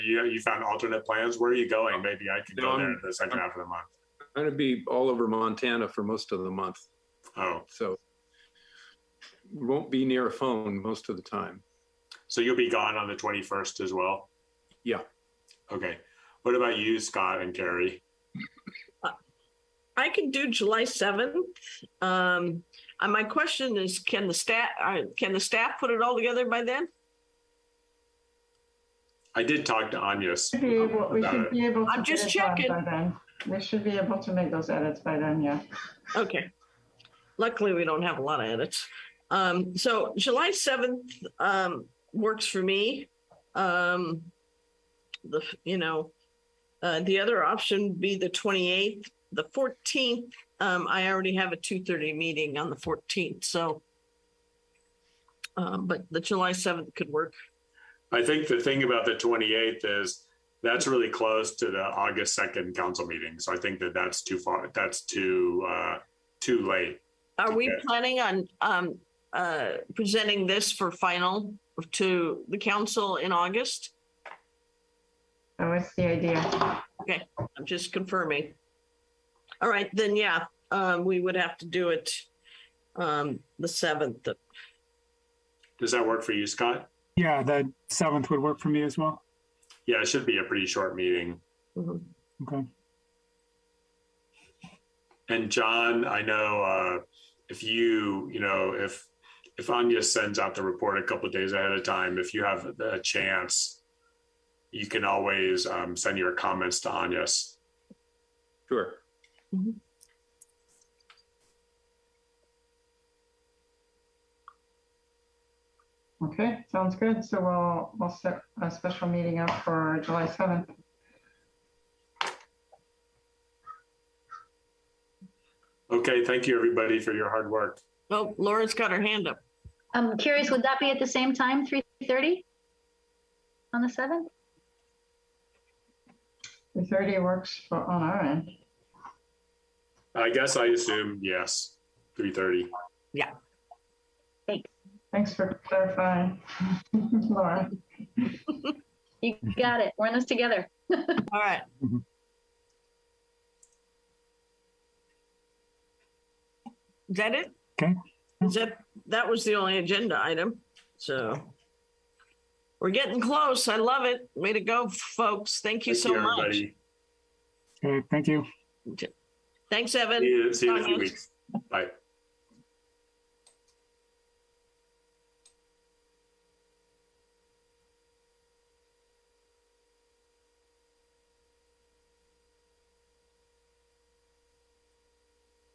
You you found alternate plans. Where are you going? Maybe I could No, go there Um, I'm- the second half of the month. I'm going to be all over Montana for most of the month, Oh, so won't be near a phone most of the time. so you'll be gone on the twenty first as well. Yeah. Okay. What about you, Scott and Carrie? I can do July seventh. Um, and my question is, can the staff, uh, can the staff put it all together by then? I did talk to Anya's. Should be able- We about should it. be able to. I'm just get it done checking. By then, we should be able to make those edits by then, yeah. Okay. Luckily, we don't have a lot of edits. Um, so July seventh, um, works for me. Um, the, you know, uh, the other option would be the twenty-eighth, the fourteenth. Um, I already have a two-thirty meeting on the fourteenth, so. Um, but the July seventh could work. I think the thing about the twenty eighth is that's really close to the August second council meeting. So I think that that's too far. That's too uh, too late. Are we Okay. planning on um uh presenting this for final to the council in August? That was the idea. I'm just confirming. All right, then, yeah, um, we would have to do it um the seventh. Does that work for you, Scott? Yeah, the seventh would work for me as well. Yeah, it should be a pretty short meeting. Okay. And John, I know uh, if you, you know, if if Anya sends out the report a couple of days ahead of time, if you have a chance, you can always um, send your comments to Anya's. Sure. Okay, sounds good. So we'll, we'll set a special meeting up for July 7th. Okay, thank you everybody for your hard work. Oh, Laura's got her hand up. I'm curious, would that be at the same time, 3:30? On the 7th? 3:30 works for, on our end. I guess I assume yes, three thirty. Thanks for clarifying, Laura. You got it. We're in this together. All right. Mhm. Is that it? Okay. Is that, that was the only agenda item, so. We're getting close. I love it. Way to go, folks. Thank you so much. Okay, thank you. Thanks, See Evan. you, see you in a few Bye. weeks. Bye.